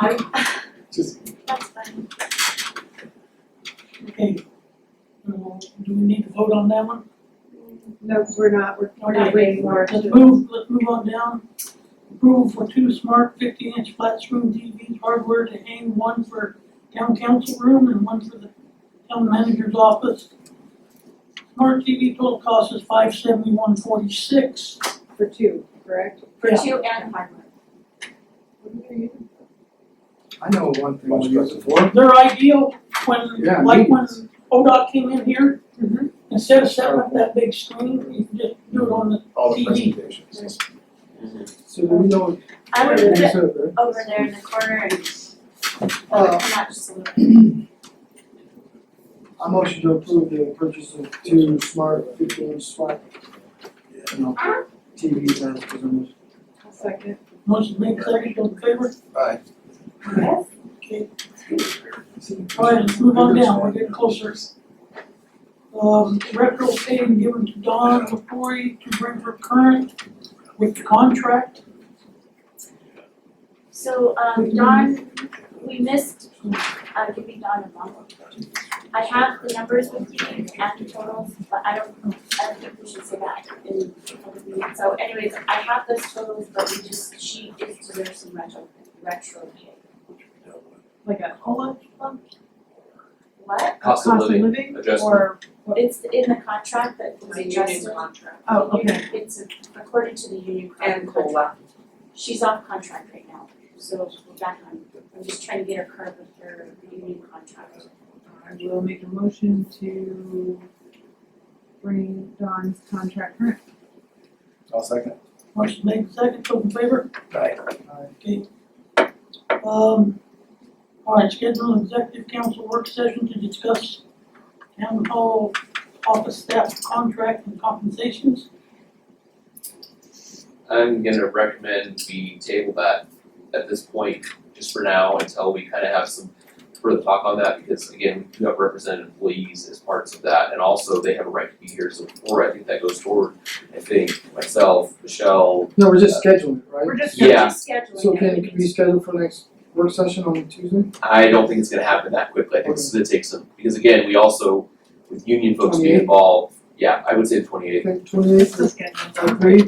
I, Just, that's fine. Okay. Uh, Do we need to vote on that one? No, we're not, we're we're not Okay. waiting for. Let's move, let's move on down. Approval for two smart fifty-inch flat screen TVs hardware to hang, one for town council room and one for the town manager's office. Smart TV total cost is five seventy-one forty-six. For two, correct? For Yeah. two and hardware. I know one thing Much we use it for. They're ideal when, Yeah, like when meetings. ODOT came in here, Mhm. instead of setting up that big screen, you can just do it on the, all the TV. presentations. So do we know? I would Yeah, move you it said that. over there in the corner and Uh, come out just a little bit. I motion to approve the purchase of two smart fifteen smart. You know, TVs as presented. I'll second. motion made, second, all in favor? Aye. Yes. Okay, Go ahead, let's move on down, we're getting closer. Um, retro pay given to Dawn McCory to bring her current with the contract. So, um, Dawn, we missed, uh, giving Dawn a month. I have the numbers with you and the totals, but I don't, I don't think we should say that in public meeting. So anyways, I have those totals, but we just, she is deserves some retro, retro pay. like a cola bump, What? cost of living, or, It's in the contract that was The adjusted. union contract. oh, okay, Union- It's according to the union And contract. COLA. She's off contract right now, so we're back on, I'm just trying to get her current with her union contract. I will make a motion to bring Dawn's contract current. I'll second. Motion made, second, all in favor? Aye. Okay. Um, all right, schedule an executive council work session to discuss town hall office staff contract and compensations. I'm gonna recommend we table that at this point, just for now, until we kind of have some further talk on that, because again, we do have represented employees as parts of that, and also they have a right to be here, so before I think that goes forward, I think myself, Michelle, No, we're just scheduling, it, right? We're just We're Yeah. just scheduling So can it. it be scheduled for next work session on Tuesday? I don't think it's gonna happen that quickly, I think it's gonna take some, because again, we also, with union folks being 28th. involved, yeah, I would say the twenty eighth, Twenty eighth Let's get them. agree?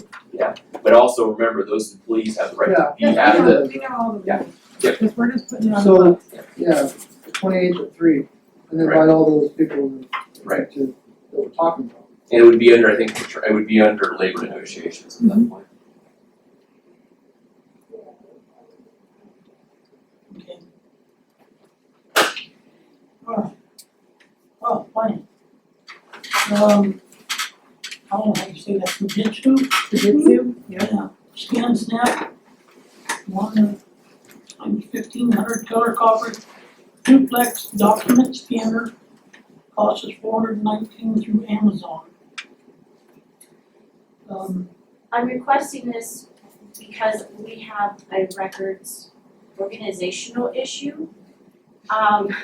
but also remember, those employees have the right to be Yeah. at Yes, the we know, we know all of Yeah. them. Yep. Cause we're just putting it on the So- books. Yeah, twenty eighth at three, and then invite all those people to, Right. to, that we're talking about. And it would be under, I think, it would be under labor negotiations at that point. Okay. Alright. Oh, funny. Um, I don't know how you say that, Fujitsu? Mm-hmm. Fujitsu, yep. Yeah, scan snap, one of fifteen hundred color copper duplex document scanner, costs us four hundred nineteen through Amazon. Um, I'm requesting this because we have a records organizational issue. Um,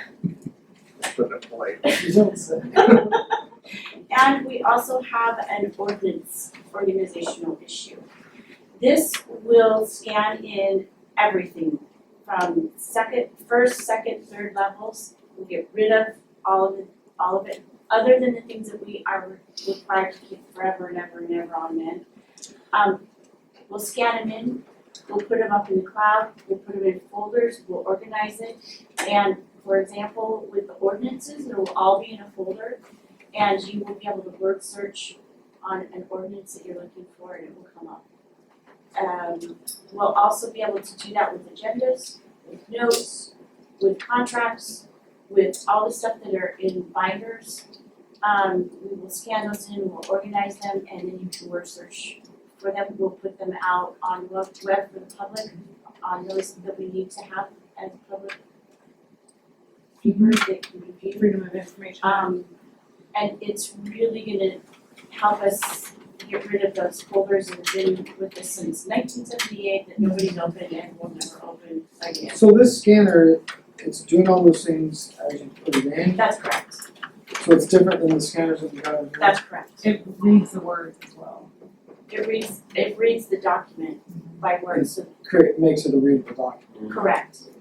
Put it away. Is that what it said? And we also have an ordinance organizational issue. This will scan in everything from second, first, second, third levels. We'll get rid of all of it, all of it, other than the things that we are required to keep forever and ever and ever on end. Um, we'll scan them in, we'll put them up in the cloud, we'll put them in folders, we'll organize it. And for example, with the ordinances, it will all be in a folder and you will be able to word search on an ordinance that you're looking for and it will come up. Um, we'll also be able to do that with agendas, with notes, with contracts, with all the stuff that are in binders. Um, we will scan those in, we'll organize them, and then you can word search for them, we'll put them out on web, web for the public, on those that we need to have as public papers that can be viewed. Freedom of information. Um, and it's really gonna help us get rid of those folders that have been with us since nineteen seventy-eight that nobody's opened and will never open again. So this scanner, it's doing all those things as you put it in, That's correct, so it's different than the scanners that we have in here. that's correct. It reads the words as well. It reads, it reads the document by word, so Create, makes it a readable document. correct.